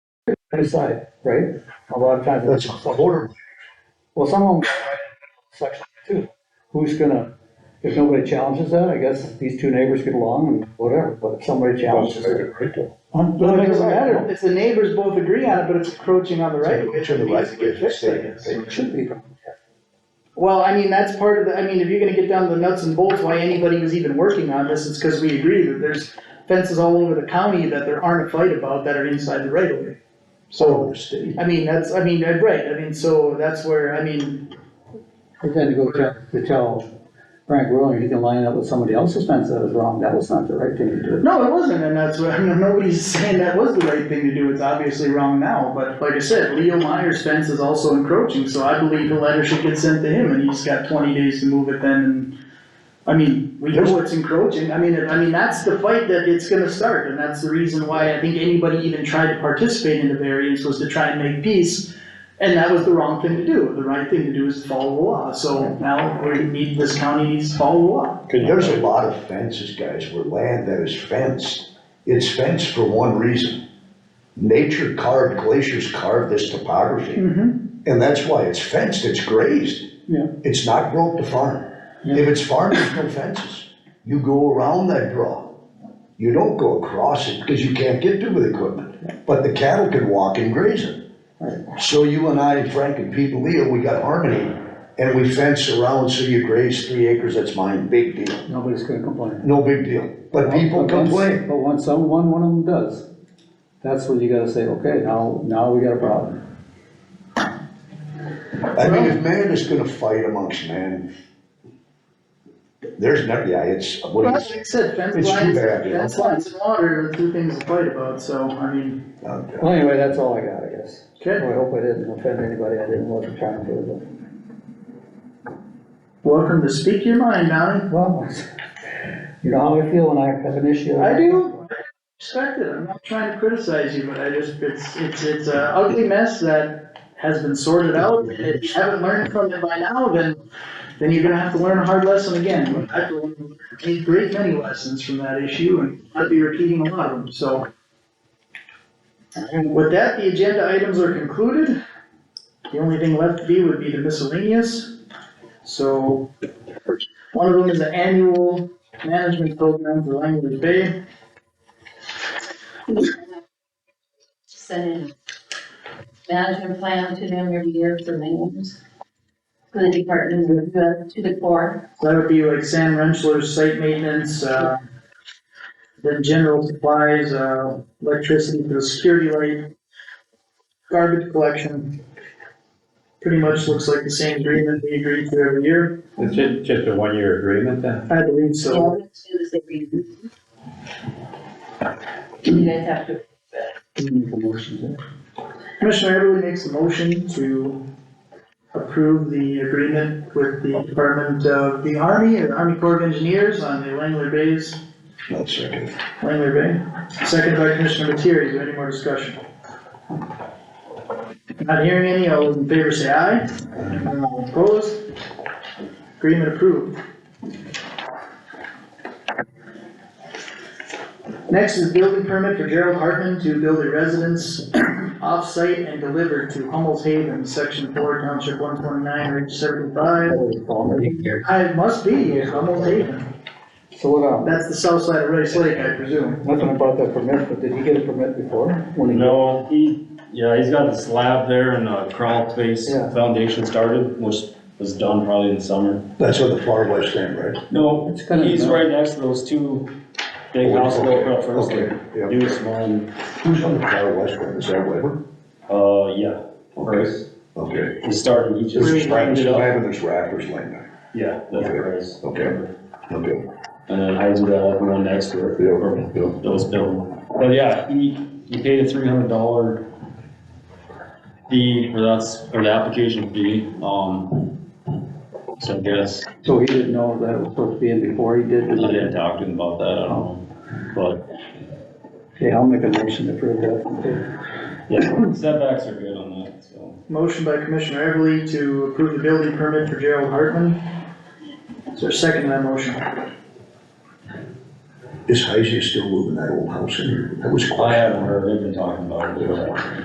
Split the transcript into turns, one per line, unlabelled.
inside, right? A lot of times.
That's a quarter.
Well, some of them, section two, who's gonna, if nobody challenges that, I guess these two neighbors get along and whatever, but if somebody challenges it. Huh?
Well,
Well,
it
it
doesn't matter,
matter.
if the neighbors both agree on it, but it's encroaching on the right.
Which are the
it needs
right
to get
of
fixed, I guess.
way?
It should be.
Well, I mean, that's part of the, I mean, if you're gonna get down to the nuts and bolts, why anybody was even working on this, it's cause we agree that there's fences all over the county that there aren't a fight about that are inside the right of way. So, I mean, that's, I mean, uh, right, I mean, so that's where, I mean,
But then to go tell, to tell Frank Rowling, he can line up with somebody else's fence that was wrong, that was not the right thing to do.
no, it wasn't, and that's what, I mean, nobody's saying that was the right thing to do, it's obviously wrong now, but like I said, Leo Meyer's fence is also encroaching, so I believe the letter should get sent to him, and he's got twenty days to move it then, and I mean, we know it's encroaching, I mean, I mean, that's the fight that it's gonna start, and that's the reason why I think anybody even tried to participate in the variance was to try and make peace. And that was the wrong thing to do, the right thing to do is to follow the law, so now we need, this county needs to follow the law.
There's a lot of fences, guys, where land that is fenced, it's fenced for one reason. Nature carved, glaciers carved this topography,
Mm-hmm.
and that's why it's fenced, it's grazed.
Yeah.
It's not built to farm. If it's farmed, there's no fences. You go around that draw. You don't go across it because you can't get to it with equipment, but the cattle can walk and graze it. So you and I, Frank and Pete and Leo, we got harmony, and we fence around, so you graze three acres, that's mine, big deal.
Nobody's gonna complain.
No big deal, but people
But once-
complain.
But when someone, one of them does, that's when you gotta say, okay, now, now we got a problem.
I mean, if man is gonna fight amongst man, there's not, yeah, it's, what
Well,
do you
like
say?
I said, fence
It's too
lines,
bad, you know.
fence lines and water are two things to fight about, so, I mean,
Uh,
Well, anyway, that's all I got, I guess.
okay.
Well, I hope I didn't offend anybody, I didn't want to try and do
Welcome to speak your mind, Donnie.
it. Well, you know how I feel when I have an issue.
I do, I respect it, I'm not trying to criticize you, but I just, it's, it's, it's a ugly mess that has been sorted out, and if you haven't learned from it by now, then, then you're gonna have to learn a hard lesson again. But I've learned a great many lessons from that issue, and I'll be repeating a lot of them, so. And with that, the agenda items are concluded, the only thing left to be would be the miscellaneous, so. One of them is the annual management program for Langley Bay.
send in management plan to them every year for maintenance. For the department, to the- to the core,
That would be like Sam Rensselaer's site maintenance, uh, then general supplies, uh, electricity for the security light, garbage collection. Pretty much looks like the same agreement we agreed to every year,
It's ju- just a one-year agreement then?
I believe
so
so.
all we do is every year. You guys have to,
Commissioner Everly makes a motion to approve the agreement with the Department of the Army and Army Corps of Engineers on the Langley Bays,
One second.
Langley Bay. Second by Commissioner Materi, is there any more discussion? Not hearing any, all those in favor say aye. Anyone Opposed? Agreement approved. Next is building permit for Gerald Hartman to build a residence off-site and deliver to Hummel's Haven, section four, township one twenty-nine, range seventy-five. I must be, Hummel's Haven,
So what, um,
that's the south side of Rice Lake, I presume.
nothing about that permit, but did he get a permit before? When he-
No, he, yeah, he's got the slab there and the crawl space
Yeah.
foundation started, which was done probably in the summer.
That's what the far west end, right?
No,
It's kinda-
he's right next to those two big houses built up first,
Okay, yeah.
like, newest one,
Who's on the far west end, is that Weber?
uh, yeah, first.
Okay.
He started, he
There's
just
rappers,
rounded it up.
there's rappers laying there.
Yeah, that's
Okay,
Perez.
okay. Okay,
And then Heisendale, the one next to it.
yeah, yeah.
those built. But yeah, he, he paid a three hundred dollar fee, or that's, or the application fee, um, so I guess,
So he didn't know that it was supposed to be in before he did?
I didn't talk to him about that, I don't know,
Okay, I'll make a motion to approve that.
but, yeah, setbacks are good on that, so.
Motion by Commissioner Everly to approve the building permit for Gerald Hartman. Is there a second to that motion?
Is Heisey still moving that old house in here? That was quite.
I haven't heard, they've been talking about it.